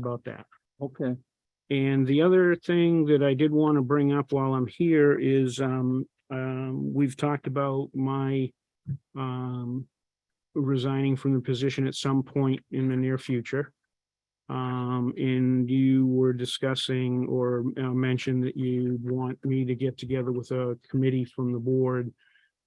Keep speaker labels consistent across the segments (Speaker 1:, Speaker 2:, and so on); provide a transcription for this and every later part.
Speaker 1: about that.
Speaker 2: Okay,
Speaker 1: And the other thing that I did want to bring up while I'm here is, um, um, we've talked about my, um, resigning from the position at some point in the near future. Um, and you were discussing or uh, mentioned that you want me to get together with a committee from the board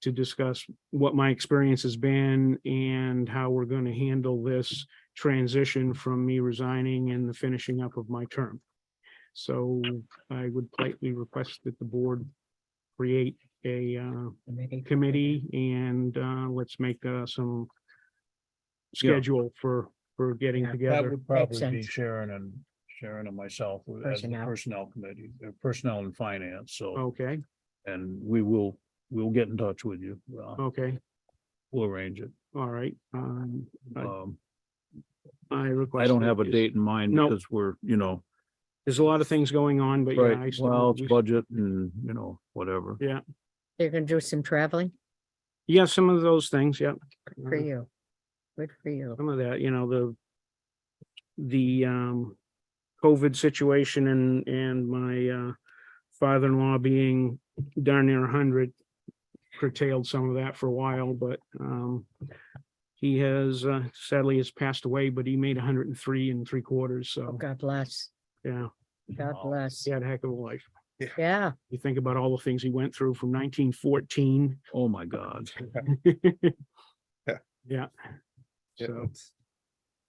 Speaker 1: to discuss what my experience has been and how we're going to handle this transition from me resigning and the finishing up of my term. So I would politely request that the board create a uh, committee and uh, let's make uh, some
Speaker 2: Yeah.
Speaker 1: schedule for, for getting
Speaker 2: that
Speaker 1: together.
Speaker 2: would probably be
Speaker 3: sense.
Speaker 2: Sharon and Sharon and myself with- as the
Speaker 3: Personnel.
Speaker 2: personnel committee, uh, personnel and finance, so,
Speaker 1: Okay,
Speaker 2: and we will, we'll get in touch with you. Uh,
Speaker 1: okay,
Speaker 2: We'll arrange it.
Speaker 1: all right. um, Right.
Speaker 2: Um,
Speaker 1: I
Speaker 2: I
Speaker 1: request.
Speaker 2: don't
Speaker 1: that
Speaker 2: have a
Speaker 1: you-
Speaker 2: date in mind
Speaker 1: No.
Speaker 2: because we're, you know,
Speaker 1: There's a lot of things going on, but yeah. I
Speaker 2: right,
Speaker 1: still-
Speaker 2: well, it's
Speaker 1: we-
Speaker 2: budget and, you know, whatever.
Speaker 3: They're gonna do some traveling
Speaker 1: Yeah, some of those things, yeah.
Speaker 3: Good for
Speaker 1: Mhm.
Speaker 3: you. Good for you.
Speaker 1: some of that, you know, the the um COVID situation and and my uh father-in-law being darn near hundred curtailed some of that for a while, but um he has uh, sadly has passed away, but he made hundred and three and three quarters,
Speaker 3: Oh,
Speaker 1: so
Speaker 3: God bless.
Speaker 1: yeah,
Speaker 3: God
Speaker 2: Wow.
Speaker 3: bless.
Speaker 1: he had a heck of a life.
Speaker 3: Yeah,
Speaker 1: You think about all the things he went through from nineteen fourteen.
Speaker 2: Oh, my God.
Speaker 1: Yeah.
Speaker 4: Yeah,
Speaker 1: So,
Speaker 4: it's-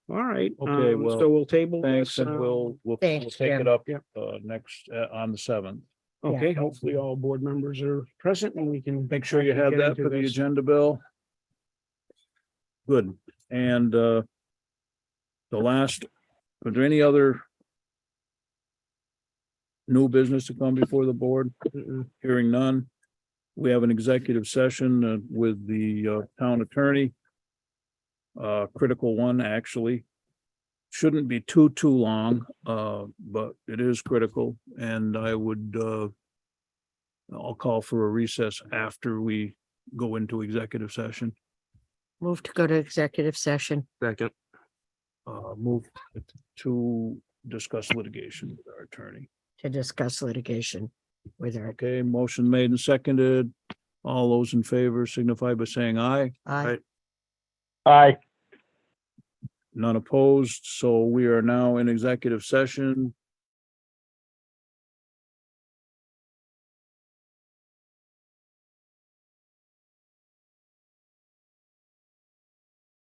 Speaker 1: all right,
Speaker 2: Okay,
Speaker 1: um,
Speaker 2: well,
Speaker 1: so we'll table.
Speaker 2: Thanks,
Speaker 1: this,
Speaker 2: and
Speaker 1: uh,
Speaker 2: we'll, we'll, we'll
Speaker 3: Thanks,
Speaker 2: take it
Speaker 3: Jim.
Speaker 2: up,
Speaker 1: Yep.
Speaker 2: uh, next, uh, on the seventh.
Speaker 3: Yeah.
Speaker 1: Okay, hopefully all board members are present and we can.
Speaker 2: Make sure you
Speaker 1: actually
Speaker 2: have
Speaker 1: get
Speaker 2: that
Speaker 1: into
Speaker 2: for the
Speaker 1: this.
Speaker 2: agenda, Bill. Good, and uh. The last, are there any other? New business to come before the board?
Speaker 1: Mm-mm.
Speaker 2: Hearing none. We have an executive session uh, with the uh, town attorney. Uh, critical one, actually. Shouldn't be too, too long, uh, but it is critical and I would, uh. I'll call for a recess after we go into executive session.
Speaker 3: move to go to executive session.
Speaker 4: Second.
Speaker 2: Uh, move to discuss litigation with our attorney.
Speaker 3: to discuss litigation with her.
Speaker 2: Okay, motion made and seconded. All those in favor signify by saying aye.
Speaker 3: I
Speaker 2: Right. None opposed, so we are now in executive session